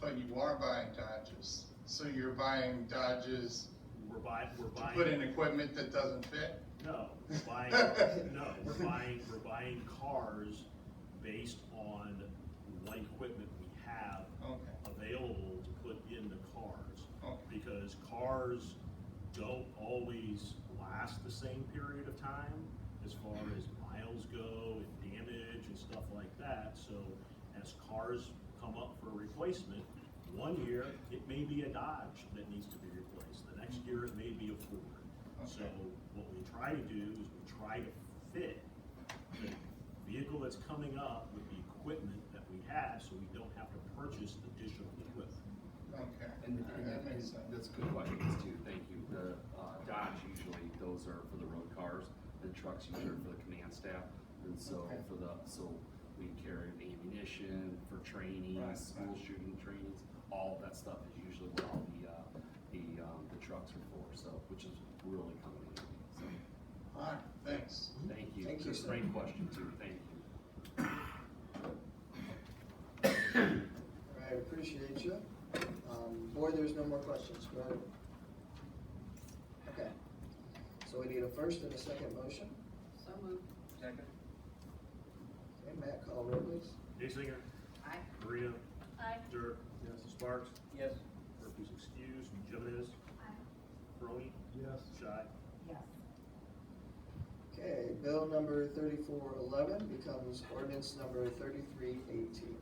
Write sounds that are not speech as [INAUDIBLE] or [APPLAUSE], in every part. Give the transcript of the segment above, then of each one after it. But you are buying Dodges, so you're buying Dodges We're buying, we're to put in buying, equipment that doesn't fit? no, [LAUGHS] we're buying, no, we're buying, we're buying cars based on what equipment we have Okay, available to put in the cars. okay, because cars don't always last the same period of time as far as miles go and damage and stuff like that. So as cars come up for replacement, one year, it may be a Dodge that needs to be replaced, the next year, it may be a Ford. Uh, So Okay. what we try to do is we try to fit the vehicle that's coming up with the equipment that we have, so we don't have to purchase additional equipment. okay. And Alright, that makes sense. that's good questions too, thank you. The uh, Dodge usually, those are for the road cars, the trucks usually are for the command staff. And so Okay. for the, so we carry the ammunition for training, Right, school right. shooting trainings, all of that stuff is usually what all the, uh, the, um, the trucks are for, so, which is really coming in. So, Alright, thanks. thank you. Mm-hmm. Thank you, sir. Great question too, thank you. I appreciate you. Um, board, there's no more questions, correct? Okay, so we need a first and a second motion. So moved. Second. Okay, Matt, call roll please. Nixlinger, Aye. Marino, Aye. Dirk. Sparks. Yes. Murphy's excused. Jimenez. Aye. Crony. Yes. Shy. Yes. Okay, bill number thirty-four eleven becomes ordinance number thirty-three eighteen.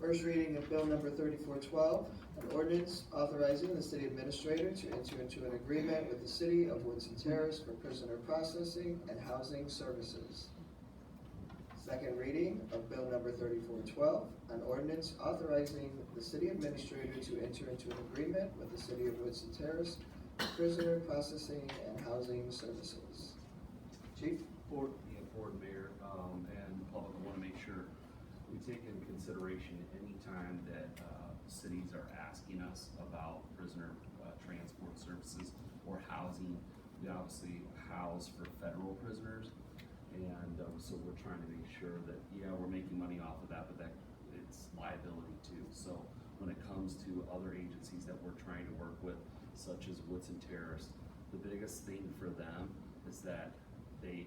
First reading of bill number thirty-four twelve, an ordinance authorizing the city administrator to enter into an agreement with the city of Woodson Terrace for prisoner processing and housing services. Second reading of bill number thirty-four twelve, an ordinance authorizing the city administrator to enter into an agreement with the city of Woodson Terrace for prisoner processing and housing services. Chief? Board, yeah, Board Mayor, um, and the public, I wanna make sure we take into consideration any time that, uh, cities are asking us about prisoner, uh, transport services or housing. We obviously house for federal prisoners, and, um, so we're trying to make sure that, yeah, we're making money off of that, but that, it's liability too. So when it comes to other agencies that we're trying to work with, such as Woodson Terrace, the biggest thing for them is that they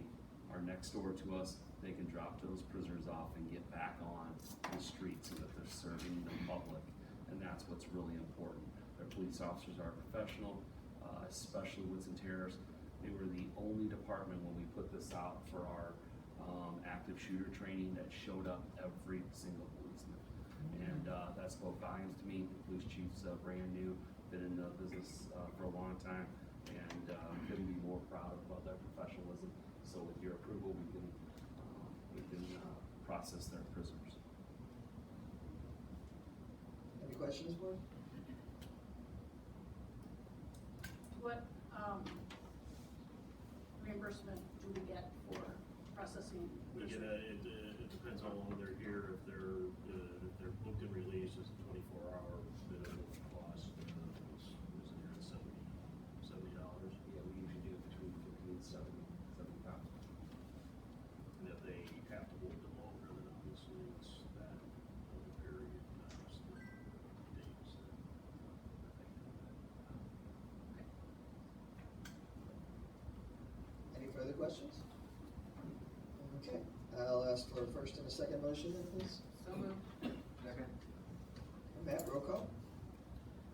are next door to us, they can drop those prisoners off and get back on the streets so that they're serving the public. And that's what's really important. Their police officers are professional, uh, especially Woodson Terrace. They were the only department when we put this out for our, um, active shooter training that showed up every single policeman. And, uh, that spoke volumes to me. The police chief's, uh, brand new, been in the business, uh, for a long time. And, uh, couldn't be more proud of their professionalism. So with your approval, we can, uh, we can, uh, process their prisoners. Any questions, board? What, um, reimbursement do we get for processing? We get a, it, uh, it depends how long they're here, if they're, uh, if they're booked and released, it's a twenty-four hour minimum cost. uh, It's, it's near at seventy, seventy dollars. Yeah, we usually do it between fifty and seventy, seventy-five. And if they have to hold them longer, then obviously it's that other period, not just the days that that they do that. Any further questions? Okay, I'll ask for a first and a second motion then, please. So moved. Matt, roll call?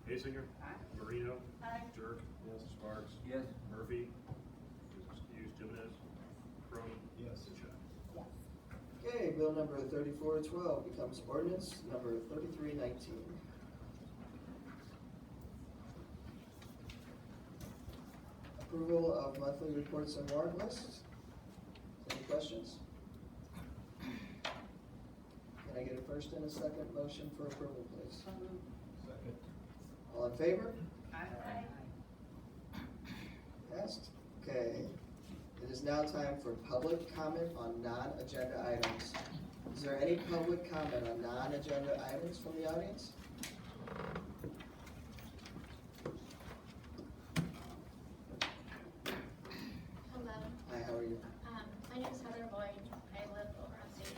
Basinger. Aye. Marino. Aye. Dirk. Yes. Sparks. Yes. Murphy. is Excused. Jimenez. Crone. Yes. Yes. Okay, bill number thirty-four twelve becomes ordinance number thirty-three nineteen. Approval of monthly reports and warrant lists. Any questions? Can I get a first and a second motion for approval, please? So moved. All in favor? Aye. Aye. Passed. Okay. It is now time for public comment on non-agenda items. Is there any public comment on non-agenda items from the audience?